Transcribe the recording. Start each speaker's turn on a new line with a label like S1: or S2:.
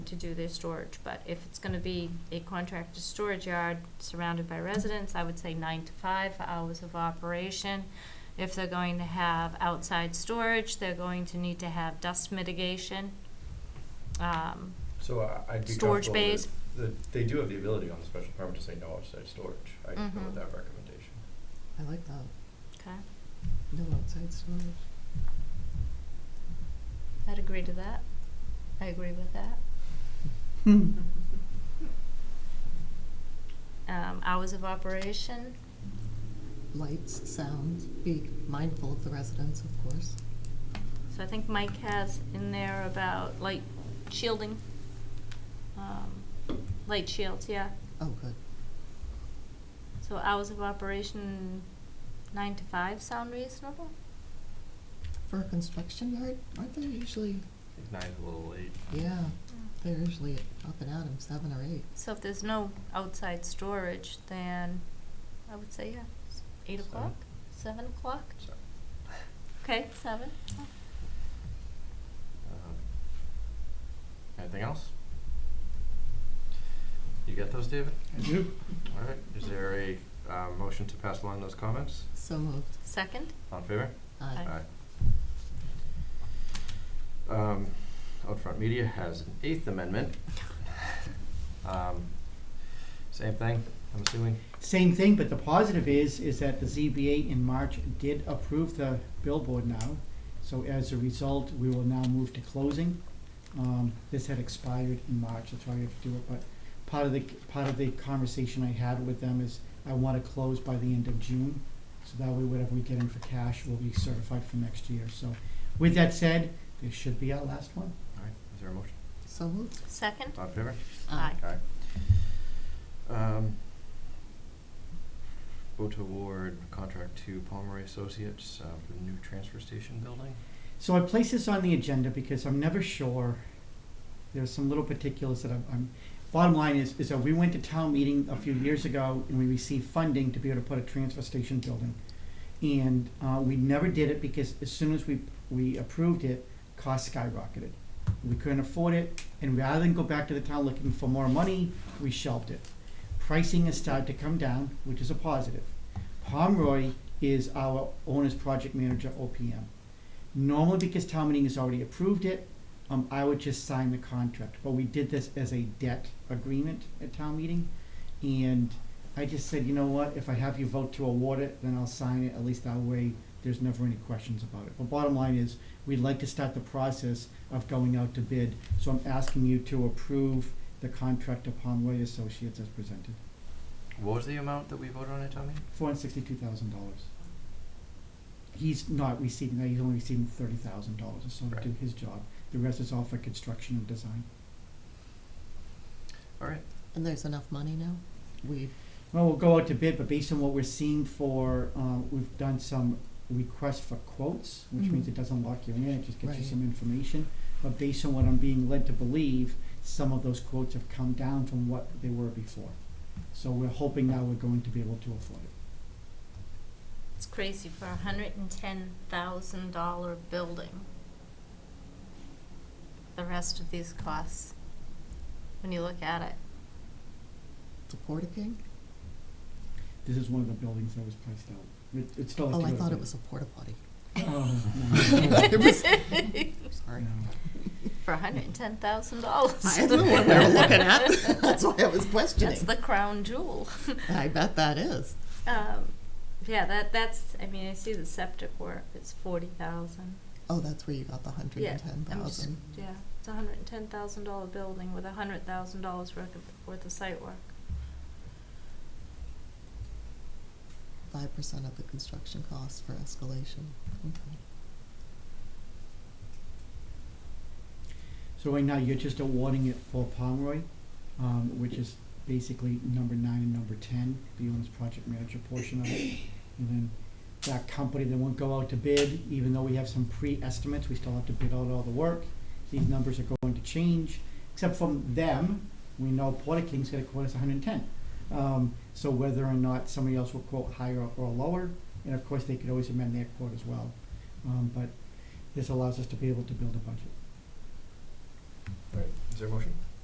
S1: to do their storage, but if it's gonna be a contracted storage yard surrounded by residents, I would say nine to five hours of operation. If they're going to have outside storage, they're going to need to have dust mitigation. Um,
S2: So I- I'd be
S1: Storage
S2: comfortable
S1: bays.
S2: with, the- they do have the ability on the special permit to say no outside storage. I'd go
S1: Mhm.
S2: with that recommendation.
S3: I like that.
S1: okay,
S3: No outside storage.
S1: I'd agree to that. I agree with that. Um, hours of operation,
S3: Lights, sound, be mindful of the residents, of course.
S1: So I think Mike has in there about light shielding, um, light shields, yeah.
S3: Oh, good.
S1: So hours of operation, nine to five, sound reasonable?
S3: For a construction yard, aren't they usually,
S2: Nine's a little late.
S3: yeah, they're usually up and at 'em, seven or eight.
S1: So if there's no outside storage, then I would say, yeah, s- eight
S2: Seven.
S1: o'clock, seven o'clock?
S2: So,
S1: Okay, seven.
S4: Um, Anything else? You get those, David?
S5: I do.
S4: All right, is there a uh, motion to pass along those comments?
S3: So moved.
S1: Second?
S4: All in favor?
S3: Aye.
S1: Aye.
S4: Um, Outfront Media has an Eighth Amendment. Um, Same thing, I'm assuming?
S5: Same thing, but the positive is, is that the ZBA in March did approve the billboard now. So as a result, we will now move to closing. Um, this had expired in March, that's why we have to do it, but part of the, part of the conversation I had with them is I wanna close by the end of June. So that way, whatever we get in for cash will be certified for next year. So with that said, this should be our last one.
S4: All right, is there a motion?
S3: So moved.
S1: Second?
S4: All in favor?
S3: Uh,
S1: Aye.
S4: Um, Vote to award contract to Palmer Associates uh, for the new transfer station building.
S5: So I place this on the agenda because I'm never sure. There's some little particulars that I'm, I'm, bottom line is, is that we went to town meeting a few years ago and we received funding to be able to put a transfer station building. And, uh, we never did it because as soon as we, we approved it, costs skyrocketed. We couldn't afford it, and rather than go back to the town looking for more money, we shelved it. Pricing has started to come down, which is a positive. Pomeroy is our owner's project manager, OPM normally because town meeting has already approved it, um, I would just sign the contract, but we did this as a debt agreement at town meeting. And I just said, you know what, if I have you vote to award it, then I'll sign it, at least that way, there's never any questions about it. But bottom line is, we'd like to start the process of going out to bid, so I'm asking you to approve the contract upon Roy Associates as presented,
S4: What was the amount that we voted on at town meeting?
S5: four hundred sixty-two thousand dollars. He's not receiving that, he's only receiving thirty thousand dollars or so to do
S4: Right.
S5: his job. The rest is all for construction and design.
S4: All right,
S3: And there's enough money now? We,
S5: Well, we'll go out to bid, but based on what we're seeing for, um, we've done some requests for quotes, which means
S3: Mhm.
S5: it doesn't lock you in, it just gets you
S3: Right.
S5: some information. But based on what I'm being led to believe, some of those quotes have come down from what they were before. So we're hoping now we're going to be able to afford it.
S1: It's crazy for a hundred and ten thousand dollar building. The rest of these costs, when you look at it.
S3: the Porta King?
S5: This is one of the buildings that was priced out. It, it's still. has
S3: Oh,
S5: to
S3: I
S5: go to
S3: thought it
S5: bid.
S3: was a porta potty. Uh-huh.
S5: Oh,
S3: It was- Sorry.
S5: no.
S1: For hundred and ten thousand dollars.
S3: I don't know what we were looking at. That's why I was questioning.
S1: That's the crown jewel.
S3: I bet that is.
S1: Um, yeah, that, that's, I mean, I see the septic work, it's forty thousand.
S3: Oh, that's where you got the hundred
S1: Yeah,
S3: and ten
S1: I'm just-
S3: thousand.
S1: Yeah, it's a hundred and ten thousand dollar building with a hundred thousand dollars worth of, worth of site work.
S3: Five percent of the construction cost for escalation. Okay.
S5: So right now, you're just awarding it for Pomeroy, um, which is basically number nine and number ten, the owner's project manager portion of it. And then that company, they won't go out to bid, even though we have some pre-estimates, we still have to bid out all the work. These numbers are going to change, except from them, we know Porter King's gonna quote us hundred and ten. Um, so whether or not somebody else will quote higher or lower, and of course, they could always amend their quote as well. Um, but this allows us to be able to build a budget.
S4: All right, is there a motion?